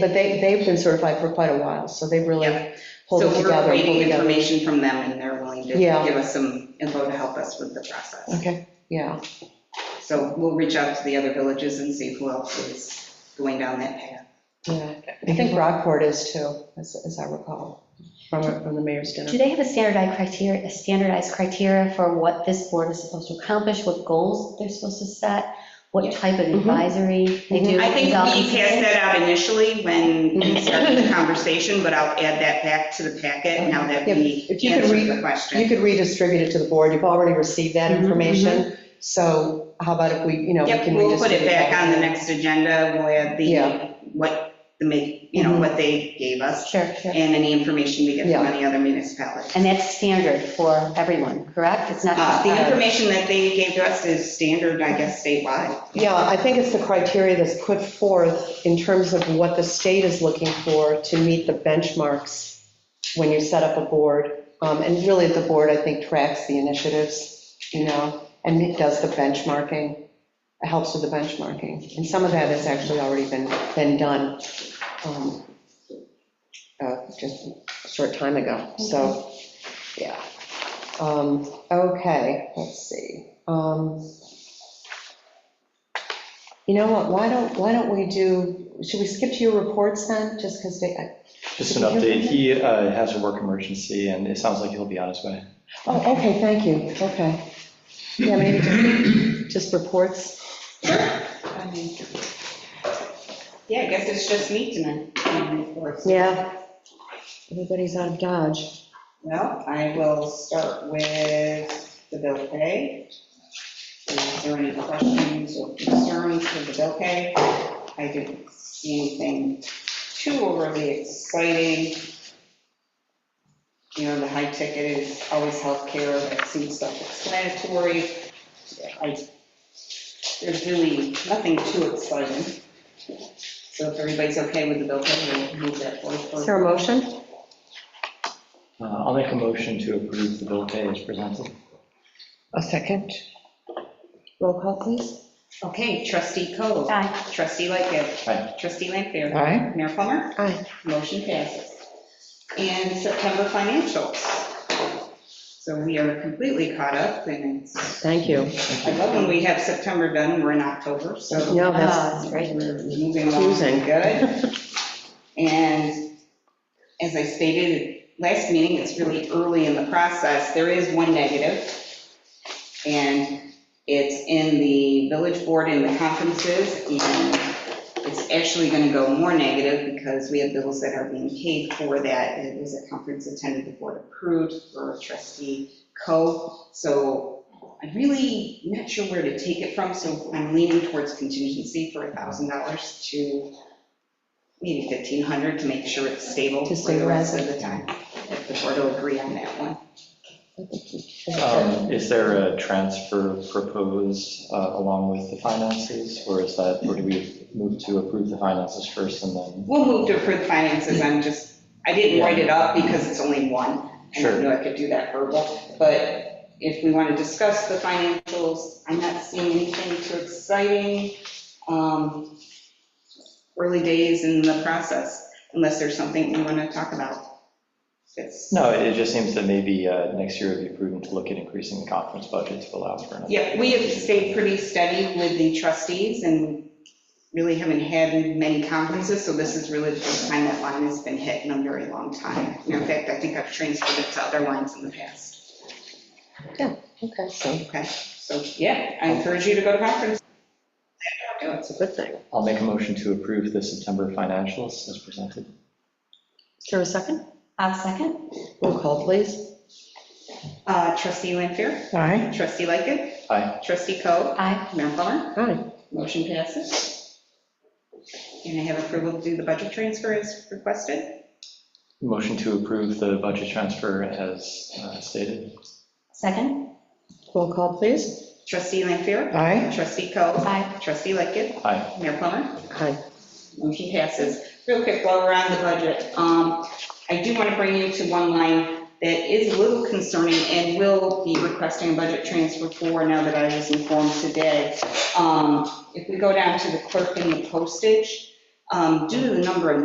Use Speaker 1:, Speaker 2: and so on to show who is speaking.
Speaker 1: But they, they've been certified for quite a while, so they really
Speaker 2: Yeah.
Speaker 1: pulled it
Speaker 2: So we're
Speaker 1: together. and pulled
Speaker 2: waiting
Speaker 1: it together.
Speaker 2: information from them, and they're willing to
Speaker 1: Yeah.
Speaker 2: give us some info to help us with the process.
Speaker 1: Okay, yeah,
Speaker 2: So we'll reach out to the other villages and see who else is going down that path.
Speaker 1: yeah. I think Rockport is too, as, as I recall, from, from the mayor's dinner.
Speaker 3: Do they have a standardized criteria, a standardized criteria for what this board is supposed to accomplish, what goals they're supposed to set, what type of
Speaker 1: Mhm.
Speaker 3: advisory they do?
Speaker 2: Mm-hmm. I think we
Speaker 3: without
Speaker 2: passed
Speaker 3: consent?
Speaker 2: that out initially when we
Speaker 1: Mm-hmm.
Speaker 2: started the conversation, but I'll add that back to the packet now that we
Speaker 1: If you could
Speaker 2: answered
Speaker 1: read-
Speaker 2: the
Speaker 1: You
Speaker 2: question.
Speaker 1: could redistribute it to the board, you've already received that
Speaker 3: Mhm,
Speaker 1: information, so how about if we, you know, we
Speaker 2: Yep,
Speaker 1: can
Speaker 2: we'll put
Speaker 1: redistribute.
Speaker 2: it back on the next agenda, we'll add
Speaker 1: Yeah.
Speaker 2: the, what, the, ma- you know,
Speaker 1: Mhm.
Speaker 2: what they gave us,
Speaker 3: Sure, sure.
Speaker 2: and any information we get from
Speaker 1: Yeah.
Speaker 2: any other municipalities.
Speaker 3: And that's standard for everyone, correct? It's not
Speaker 2: Uh,
Speaker 3: just
Speaker 2: The
Speaker 3: ours.
Speaker 2: information that they gave to us is standard, I guess, statewide.
Speaker 1: Yeah, I think it's the criteria that's put forth in terms of what the state is looking for to meet the benchmarks when you set up a board. Um, And really, the board, I think, tracks the initiatives, you know, and it does the benchmarking, It helps with the benchmarking. And some of that has actually already been, been done um, uh, just a short time ago, so, yeah. Um, Okay, let's see. Um, you know what, why don't, why don't we do, should we skip to your reports then, just because they,
Speaker 4: Just an update, he uh, has a work emergency, and it sounds like he'll be on his way.
Speaker 1: oh, okay, thank you, okay. Yeah, maybe just- just reports.
Speaker 2: Yeah, I guess it's just me tonight. um, of course.
Speaker 1: Yeah. Everybody's out of Dodge.
Speaker 2: Well, I will start with the bill pay. Is there any questions or concerns for the bill pay? I didn't see anything too overly exciting. You know, the high ticket is always healthcare, that seems self-explanatory. I, there's really nothing too exciting. So if everybody's okay with the bill pay, we'll move that forward. for-
Speaker 1: Is there a motion?
Speaker 4: Uh, I'll make a motion to approve the bill pay as presented.
Speaker 1: A second. Roll call, please.
Speaker 2: Okay, trustee Coe.
Speaker 3: Aye.
Speaker 2: Trustee Lightgev.
Speaker 4: Aye.
Speaker 2: Trustee Lanfair.
Speaker 1: Aye.
Speaker 2: Mayor Plummer.
Speaker 1: Aye.
Speaker 2: Motion passes. And September financials. So we are completely caught up, and it's,
Speaker 1: Thank you.
Speaker 2: I love when we have September done, we're in October, so
Speaker 1: No,
Speaker 3: Ah,
Speaker 1: that's,
Speaker 3: that's great.
Speaker 2: we're moving along
Speaker 1: Confusing.
Speaker 2: good. And as I stated at last meeting, it's really early in the process, there is one negative, and it's in the village board and the conferences, and it's actually going to go more negative because we have bills that are being paid for that. It was a conference attended, the board approved for trustee Co. So I'm really not sure where to take it from, so I'm leaning towards contingency for $1,000 to maybe 1,500 to make sure it's stable
Speaker 1: To
Speaker 2: for the rest of
Speaker 1: stabilize
Speaker 2: the time, if the board will agree on that one.
Speaker 1: Oh.
Speaker 4: Um, Is there a transfer proposed uh, along with the finances, or is that, or do we move to approve the finances first and then?
Speaker 2: We'll move to approve the finances, I'm just, I didn't write it up because it's only one. and I
Speaker 4: Sure.
Speaker 2: knew I could do that verbal, but if we want to discuss the financials, I'm not seeing anything too exciting. um, Early days in the process, unless there's something we want to talk about. It's,
Speaker 4: No, it just seems that maybe uh, next year it'd be prudent to look at increasing the conference budget to allow for another.
Speaker 2: yeah, we have stayed pretty steady with the trustees and really haven't had many conferences, so this is really the first time that line has been hit in a very long time. And In fact, I think I've transferred it to other lines in the past.
Speaker 1: okay, so,
Speaker 2: Okay, so yeah, I encourage you to go to conferences. Do it.
Speaker 1: it's a good thing.
Speaker 4: I'll make a motion to approve the September financials as presented.
Speaker 1: Is there a second?
Speaker 3: I'll Uh, second.
Speaker 1: Roll call, please.
Speaker 2: Uh, Trustee Lanfair,
Speaker 1: Aye.
Speaker 2: trustee Lightgev,
Speaker 4: Aye.
Speaker 2: trustee Coe,
Speaker 3: Aye.
Speaker 2: Mayor Plummer,
Speaker 1: Aye.
Speaker 2: motion passes. And I have approval to do the budget transfer as requested.
Speaker 4: Motion to approve the budget transfer as uh, stated.
Speaker 3: Second?
Speaker 1: Roll call, please.
Speaker 2: Trustee Lanfair,
Speaker 1: Aye.
Speaker 2: trustee Coe,
Speaker 3: Aye.
Speaker 2: trustee Lightgev,
Speaker 4: Aye.
Speaker 2: Mayor Plummer,
Speaker 1: Aye.
Speaker 2: motion passes. Real quick, while we're on the budget, um, I do want to bring you to one line that is a little concerning and will be requesting a budget transfer for now that I was informed today. Um, If we go down to the clerk and the postage, um, due to the number of